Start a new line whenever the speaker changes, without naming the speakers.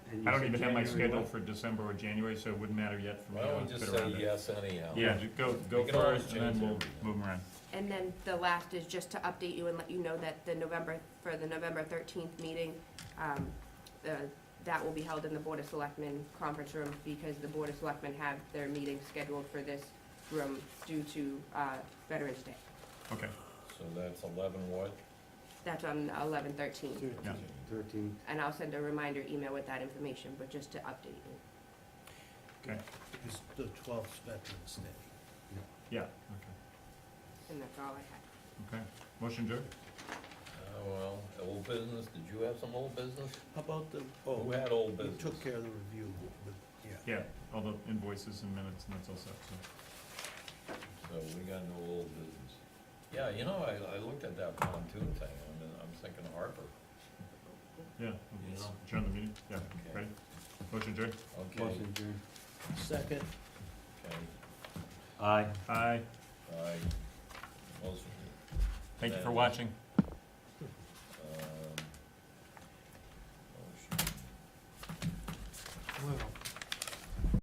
And you
I don't
said
even have my
January
schedule
what?
for December or January, so it wouldn't matter yet for me.
Why don't
I'll
we just
fit around
say
it.
yes anyhow?
Yeah, ju- go, go
We can always
first, and then
change
we'll
everything.
move 'em around.
And then the last is just to update you and let you know that the November, for the November thirteenth meeting, um, the, that will be held in the Board of Selectmen conference room because the Board of Selectmen have their meeting scheduled for this room due to, uh, Veterans Day.
Okay,
So that's eleven what?
That's on eleven thirteen.
yeah.
Thirteen,
And I'll send a reminder email with that information, but just to update you.
It's the twelfth Veterans Day.
Yeah, okay,
And that's all I had.
okay. Motion, Joe?
Uh, well, old business, did you have some old business?
How about the, oh,
Who had old
we
business?
took care of the review, but, yeah.
Yeah, all the invoices and minutes and that's all set, so.
So we got no old business. Yeah, you know, I, I looked at that pontoon thing, I'm, I'm thinking Harper.
Yeah,
You know?
adjourn the meeting, yeah,
Okay.
ready? Motion adjourned?
Okay,
motion adjourned.
Second,
okay,
Aye.
Aye,
aye. Motion.
thank you for watching.
Oh,